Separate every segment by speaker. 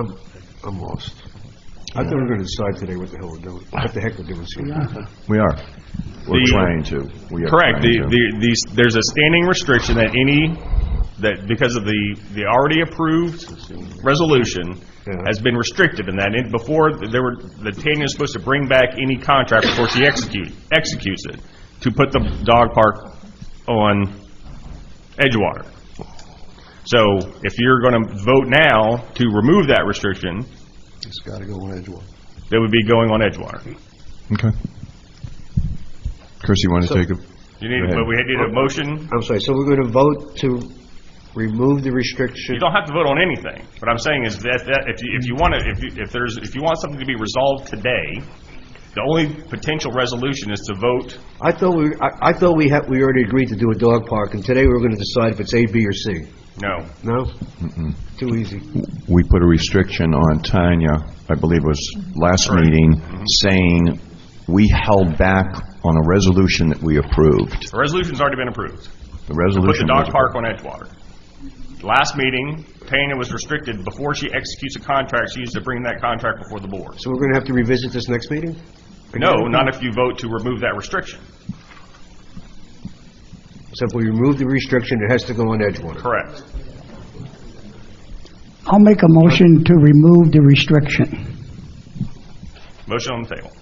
Speaker 1: I'm, I'm lost. I thought we were going to decide today what the hell we're doing, what the heck we're doing here.
Speaker 2: We are. We're
Speaker 3: The-
Speaker 2: trying to. We are
Speaker 3: Correct. The,
Speaker 2: trying to.
Speaker 3: the, these, there's a standing restriction that any, that because of the, the already approved resolution
Speaker 1: Yeah.
Speaker 3: has been restricted in that, and before, there were, the Tanya is supposed to bring back any contract before she execute, executes it, to put the dog park on Edgewater. So if you're going to vote now to remove that restriction,
Speaker 1: It's got to go on Edgewater.
Speaker 3: that would be going on Edgewater.
Speaker 2: Okay. Chris, you want to take a?
Speaker 3: You need,
Speaker 2: Right.
Speaker 3: but we need a motion.
Speaker 1: I'm sorry, so we're going to vote to remove the restriction?
Speaker 3: You don't have to vote on anything. What I'm saying is that, that if you, if you want to, if you, if there's, if you want something to be resolved today, the only potential resolution is to vote.
Speaker 1: I thought we, I I thought we had, we already agreed to do a dog park, and today we were going to decide if it's A, B, or C.
Speaker 3: No,
Speaker 1: No? Too easy.
Speaker 2: We put a restriction on Tanya, I believe it was last meeting,
Speaker 3: Mm-hmm.
Speaker 2: saying we held back on a resolution that we approved.
Speaker 3: the resolution's already been approved.
Speaker 2: The
Speaker 3: Put the
Speaker 2: resolution.
Speaker 3: dog
Speaker 2: was-
Speaker 3: park on Edgewater. Last meeting, Tanya was restricted, before she executes a contract, she used to bring that contract before the board.
Speaker 1: So we're going to have to revisit this next meeting?
Speaker 3: No, not if you vote to remove that restriction.
Speaker 1: So if we remove the restriction, it has to go on Edgewater.
Speaker 3: Correct.
Speaker 4: I'll make a motion to remove the restriction.
Speaker 3: Motion on the table.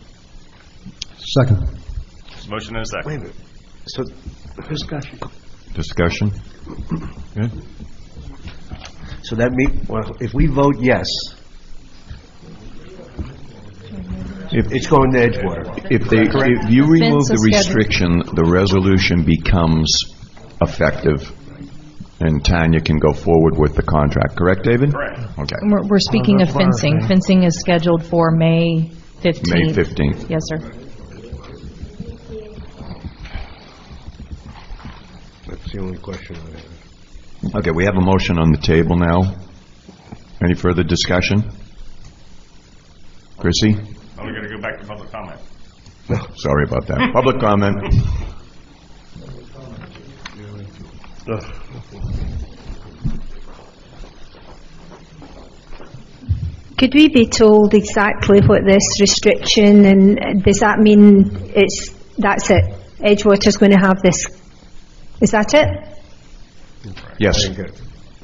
Speaker 4: Second.
Speaker 3: There's a Motion and a
Speaker 1: Wait a
Speaker 3: second.
Speaker 1: minute. So,
Speaker 4: Discussion.
Speaker 2: Discussion? Yeah.
Speaker 1: so that mean, well, if we vote yes,
Speaker 2: If-
Speaker 1: it's going to Edgewater.
Speaker 2: If they, if you remove the
Speaker 5: Fence is scheduled.
Speaker 2: restriction, the resolution becomes effective, and Tanya can go forward with the contract, correct, David?
Speaker 3: Correct.
Speaker 2: Okay.
Speaker 5: We're we're speaking of fencing. Fencing is scheduled for May 15th.
Speaker 2: May 15th.
Speaker 5: Yes, sir.
Speaker 1: That's the only question I have.
Speaker 2: Okay, we have a motion on the table now. Any further discussion? Chrissy?
Speaker 3: Now we're gonna go back to public comment.
Speaker 2: Sorry about that. Public comment?
Speaker 6: Could we be told exactly what this restriction, and uh, does that mean it's, that's it? Edgewater's going to have this, is that it?
Speaker 2: Yes.
Speaker 1: Okay.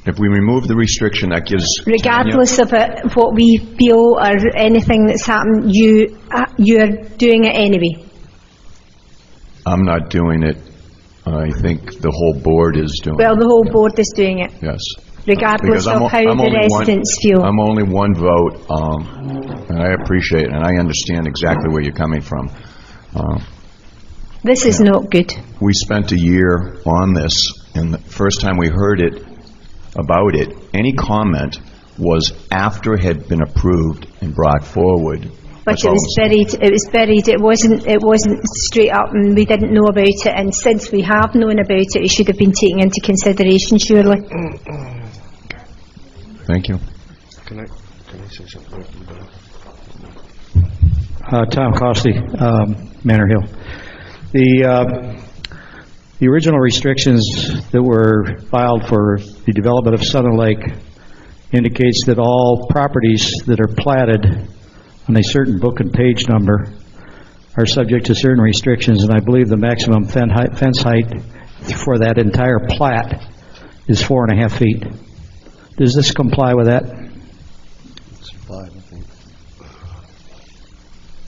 Speaker 2: If we remove the restriction, that gives... Tanya-
Speaker 6: Regardless of it, what we feel or anything that's happened, you, uh, you're doing it anyway?
Speaker 2: I'm not doing it. I think the whole board is doing
Speaker 6: Well,
Speaker 2: it,
Speaker 6: the whole board is doing it,
Speaker 2: yes.
Speaker 6: regardless
Speaker 2: Because I'm o-
Speaker 6: of how
Speaker 2: I'm
Speaker 6: the
Speaker 2: only one-
Speaker 6: residents feel.
Speaker 2: I'm only one vote, um, and I appreciate it, and I understand exactly where you're coming from. Uh,
Speaker 6: This is not good.
Speaker 2: We spent a year on this, and the first time we heard it, about it, any comment was after it had been approved and brought forward.
Speaker 6: But
Speaker 2: That's
Speaker 6: it
Speaker 2: all
Speaker 6: was
Speaker 2: I'm saying.
Speaker 6: buried, it was buried, it wasn't, it wasn't straight up and we didn't know about it and since we have known about it, it should have been taken into consideration surely.
Speaker 2: Thank you.
Speaker 1: Can I, can I say something?
Speaker 7: Uh, Tom Costley, um, Manor Hill. The, uh, the original restrictions that were filed for the development of Southern Lake indicates that all properties that are platted on a certain book and page number are subject to certain restrictions, and I believe the maximum fen- height- fence height for that entire plat is four and a half feet. Does this comply with that?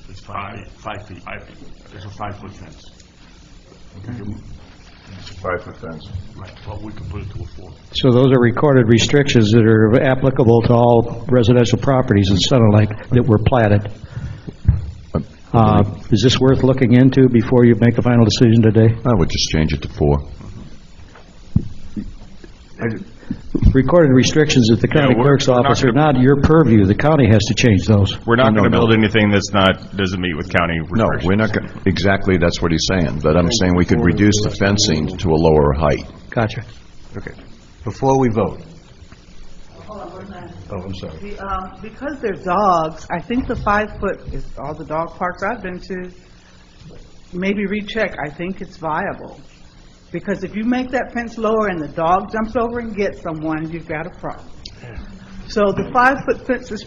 Speaker 3: It's five, five feet. Five feet. There's a five-foot fence.
Speaker 2: Five-foot fence.
Speaker 3: Right, well, we can put it to a four.
Speaker 7: So those are recorded restrictions that are applicable to all residential properties in Center Lake that were platted. Uh, Is this worth looking into before you make a final decision today?
Speaker 2: I would just change it to four.
Speaker 7: Recorded restrictions at the county
Speaker 3: Yeah, we're-
Speaker 7: clerk's
Speaker 3: we're not
Speaker 7: office are not your purview. The county has to change those.
Speaker 3: We're not
Speaker 2: No,
Speaker 3: going to
Speaker 2: no,
Speaker 3: build anything that's not, doesn't meet with county
Speaker 2: No,
Speaker 3: restrictions.
Speaker 2: we're not, go- exactly, that's what he's saying, but I'm saying we could reduce the fencing to a lower height.
Speaker 7: Gotcha.
Speaker 1: Okay, before we vote. Oh, I'm sorry.
Speaker 8: The, um, Because they're dogs, I think the five-foot is all the dog parks I've been to. Maybe recheck, I think it's viable. Because if you make that fence lower and the dog jumps over and gets someone, you've got a problem. So the five-foot fence is